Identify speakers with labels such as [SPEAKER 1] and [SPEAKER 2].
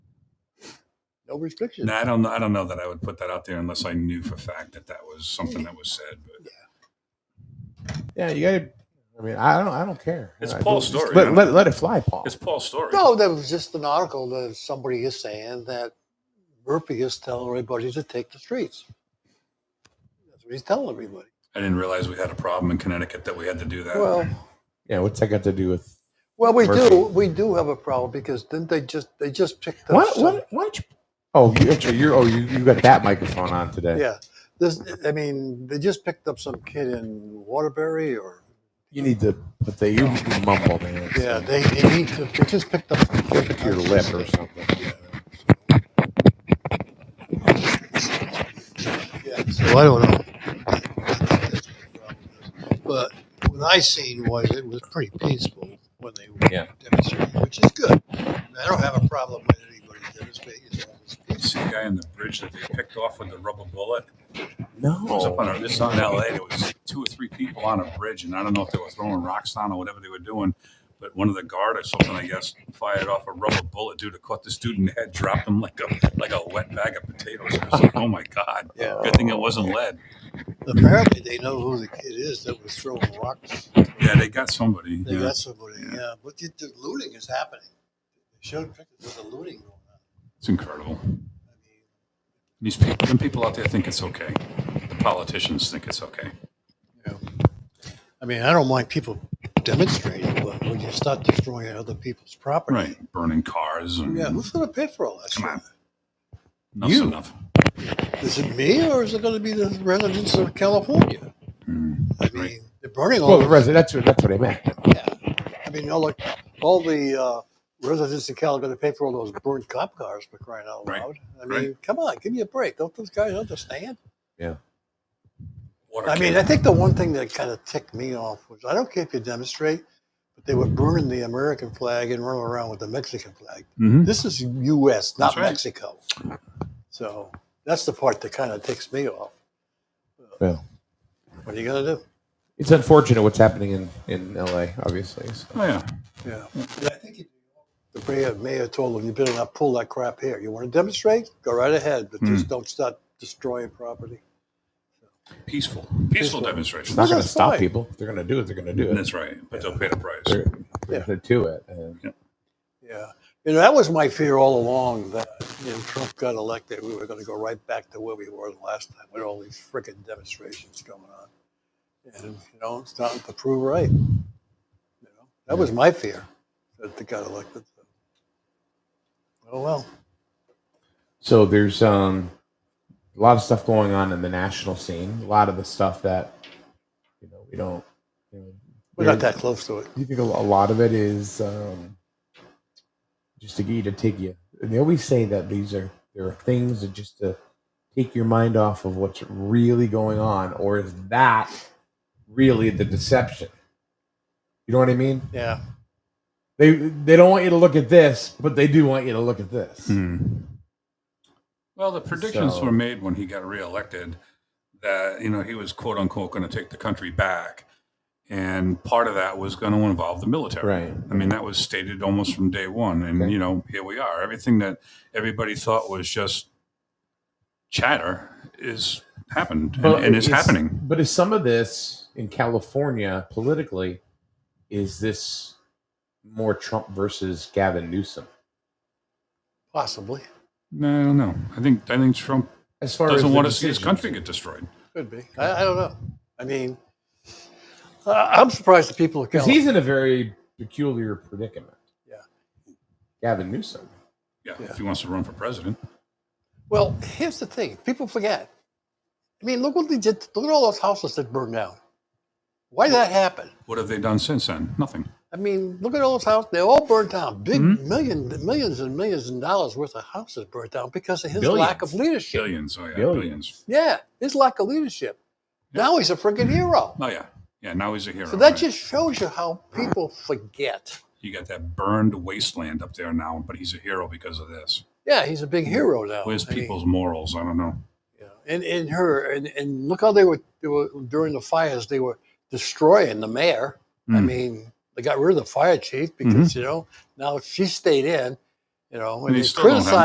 [SPEAKER 1] no restrictions.
[SPEAKER 2] No, I don't. I don't know that I would put that out there unless I knew for fact that that was something that was said. But
[SPEAKER 3] Yeah, you gotta. I mean, I don't. I don't care.
[SPEAKER 2] It's
[SPEAKER 3] I
[SPEAKER 2] Paul's
[SPEAKER 3] don't- just
[SPEAKER 2] story,
[SPEAKER 3] Let,
[SPEAKER 2] you
[SPEAKER 3] let,
[SPEAKER 2] know?
[SPEAKER 3] let it fly, Paul.
[SPEAKER 2] it's Paul's story.
[SPEAKER 1] No, that was just an article that somebody is saying that Murphy is telling everybody to take the streets. That's what he's telling everybody.
[SPEAKER 2] I didn't realize we had a problem in Connecticut that we had to do that.
[SPEAKER 1] Well,
[SPEAKER 3] yeah, what's that got to do with?
[SPEAKER 1] well, we
[SPEAKER 3] Uh, Murphy.
[SPEAKER 1] do, we do have a problem because didn't they just they just picked up?
[SPEAKER 3] What?
[SPEAKER 1] some-
[SPEAKER 3] What? Why don't you? Oh, you, actually, you're. Oh, you, you got that microphone on today.
[SPEAKER 1] Yeah, this. I mean, they just picked up some kid in Waterbury or
[SPEAKER 3] You need to. But they. You mumble, man. It's-
[SPEAKER 1] yeah, they, they need to. They just picked up. some kid.
[SPEAKER 3] Your lip or something.
[SPEAKER 1] Yeah, so I don't know. But what I seen was it was pretty peaceful when they were
[SPEAKER 3] Yeah.
[SPEAKER 1] demonstrating, which is good. I don't have a problem with anybody demonstrating. as long as it's peaceful.
[SPEAKER 2] See the guy on the bridge that they picked off with the rubber bullet.
[SPEAKER 3] No.
[SPEAKER 2] It was
[SPEAKER 1] Oh.
[SPEAKER 2] up on a, this is out in L.A. There was two or three people on a bridge, and I don't know if they were throwing rocks down or whatever they were doing. But one of the guard or something, I guess, fired off a rubber bullet. Dude, it caught the student head, dropped him like a like a wet bag of potatoes. I was like, oh my god!
[SPEAKER 1] Yeah.
[SPEAKER 2] Good thing it wasn't lead.
[SPEAKER 1] Apparently, they know who the kid is that was throwing rocks.
[SPEAKER 2] Yeah, they got somebody.
[SPEAKER 1] They
[SPEAKER 2] yeah.
[SPEAKER 1] got somebody. Yeah, but the, the looting is happening. They showed pictures of the looting going on.
[SPEAKER 2] It's incredible.
[SPEAKER 1] I mean,
[SPEAKER 2] These people, them people out there think it's okay. The politicians think it's okay.
[SPEAKER 1] I mean, I don't mind people demonstrating, but when you start destroying other people's property,
[SPEAKER 2] Right. Burning cars and
[SPEAKER 1] Yeah, who's going to pay for all that?
[SPEAKER 2] Come
[SPEAKER 1] shit?
[SPEAKER 2] on. enough's
[SPEAKER 3] You.
[SPEAKER 2] enough.
[SPEAKER 1] Is it me or is it going to be the residents of California?
[SPEAKER 2] Mm.
[SPEAKER 1] I
[SPEAKER 2] Right.
[SPEAKER 1] mean, they're burning all.
[SPEAKER 3] Well, the resident. That's what. That's what I meant.
[SPEAKER 1] I mean, all the all the uh, residents of Cal are going to pay for all those burnt cop cars for crying out
[SPEAKER 2] Right.
[SPEAKER 1] loud. I mean,
[SPEAKER 2] Right.
[SPEAKER 1] come on, give me a break. Don't those guys understand?
[SPEAKER 2] Water
[SPEAKER 1] I mean, I
[SPEAKER 2] cannon.
[SPEAKER 1] think the one thing that kind of ticked me off was I don't care if you demonstrate, but they were burning the American flag and running around with the Mexican flag.
[SPEAKER 2] Mhm.
[SPEAKER 1] This is U.S., not
[SPEAKER 2] That's right.
[SPEAKER 1] Mexico. So that's the part that kind of ticks me off.
[SPEAKER 3] Yeah.
[SPEAKER 1] What are you gonna do?
[SPEAKER 3] It's unfortunate what's happening in in L.A. Obviously. So.
[SPEAKER 2] Oh, yeah.
[SPEAKER 1] Yeah. And I think the mayor, mayor told them, "You better not pull that crap here. You want to demonstrate? Go right ahead, but just don't start destroying property."
[SPEAKER 2] Peaceful.
[SPEAKER 1] Peaceful.
[SPEAKER 2] Peaceful
[SPEAKER 3] It's
[SPEAKER 2] demonstrations.
[SPEAKER 3] not going to
[SPEAKER 1] That's
[SPEAKER 3] stop
[SPEAKER 1] fine.
[SPEAKER 3] people. If they're going to do it. They're going to do it.
[SPEAKER 2] That's right. But they'll pay the price.
[SPEAKER 3] They're, they're
[SPEAKER 1] Yeah.
[SPEAKER 3] going to do it. And
[SPEAKER 1] Yeah. You know, that was my fear all along that when Trump got elected, we were going to go right back to where we were the last time with all these frickin' demonstrations going on. And, you know, it's starting to prove right. You know, that was my fear that they got elected. Oh, well.
[SPEAKER 3] So there's um, a lot of stuff going on in the national scene. A lot of the stuff that you know we don't. You know,
[SPEAKER 1] We're not that close to it.
[SPEAKER 3] Do you think a lo- a lot of it is um, just to get you to take you? They always say that these are there are things that just to take your mind off of what's really going on, or is that really the deception? You know what I mean?
[SPEAKER 1] Yeah.
[SPEAKER 3] They they don't want you to look at this, but they do want you to look at this.
[SPEAKER 2] Hmm. Well, the predictions
[SPEAKER 3] So-
[SPEAKER 2] were made when he got reelected that you know he was quote unquote going to take the country back, and part of that was going to involve the military.
[SPEAKER 3] Right.
[SPEAKER 2] I mean, that was stated almost from day one, and
[SPEAKER 3] Okay.
[SPEAKER 2] you know here we are. Everything that everybody thought was just chatter is happened and,
[SPEAKER 3] But
[SPEAKER 2] and is
[SPEAKER 3] it's-
[SPEAKER 2] happening.
[SPEAKER 3] But is some of this in California politically? Is this more Trump versus Gavin Newsom?
[SPEAKER 1] Possibly.
[SPEAKER 2] No, I don't know. I think I think Trump
[SPEAKER 3] As far
[SPEAKER 2] doesn't
[SPEAKER 3] the
[SPEAKER 2] want to see his
[SPEAKER 3] decisions-
[SPEAKER 2] country get destroyed.
[SPEAKER 1] Could be. I, I don't know. I mean, I- I'm surprised the people of
[SPEAKER 3] because
[SPEAKER 1] California.
[SPEAKER 3] he's in a very peculiar predicament.
[SPEAKER 1] Yeah.
[SPEAKER 3] Gavin Newsom.
[SPEAKER 2] Yeah,
[SPEAKER 1] Yeah.
[SPEAKER 2] if he wants to run for president,
[SPEAKER 1] Well, here's the thing: people forget. I mean, look what they did. Look at all those houses that burned down. Why did that happen?
[SPEAKER 2] what have they done since then? Nothing.
[SPEAKER 1] I mean, look at all those houses. They all burned down. Big
[SPEAKER 2] Hmm?
[SPEAKER 1] million, millions and millions and dollars worth of houses burned down because of his lack of leadership.
[SPEAKER 2] Billions. Oh yeah,
[SPEAKER 3] Billions.
[SPEAKER 2] billions.
[SPEAKER 1] Yeah, his lack of leadership. Now he's a freaking hero.
[SPEAKER 2] Oh yeah, yeah. Now he's a hero.
[SPEAKER 1] So that
[SPEAKER 2] right?
[SPEAKER 1] just shows you how people forget.
[SPEAKER 2] you got that burned wasteland up there now, but he's a hero because of this.
[SPEAKER 1] Yeah, he's a big hero now.
[SPEAKER 2] Where's
[SPEAKER 1] Oh, I mean,
[SPEAKER 2] people's morals? I don't know.
[SPEAKER 1] Yeah. And and her and, and look how they were, they were during the fires. They were destroying the mayor. I
[SPEAKER 3] Hmm.
[SPEAKER 2] Mm.
[SPEAKER 1] mean, they got rid of the fire chief because you know now she stayed in. You know, and
[SPEAKER 2] Mm-hmm. they
[SPEAKER 1] they
[SPEAKER 2] still don't have
[SPEAKER 1] criticized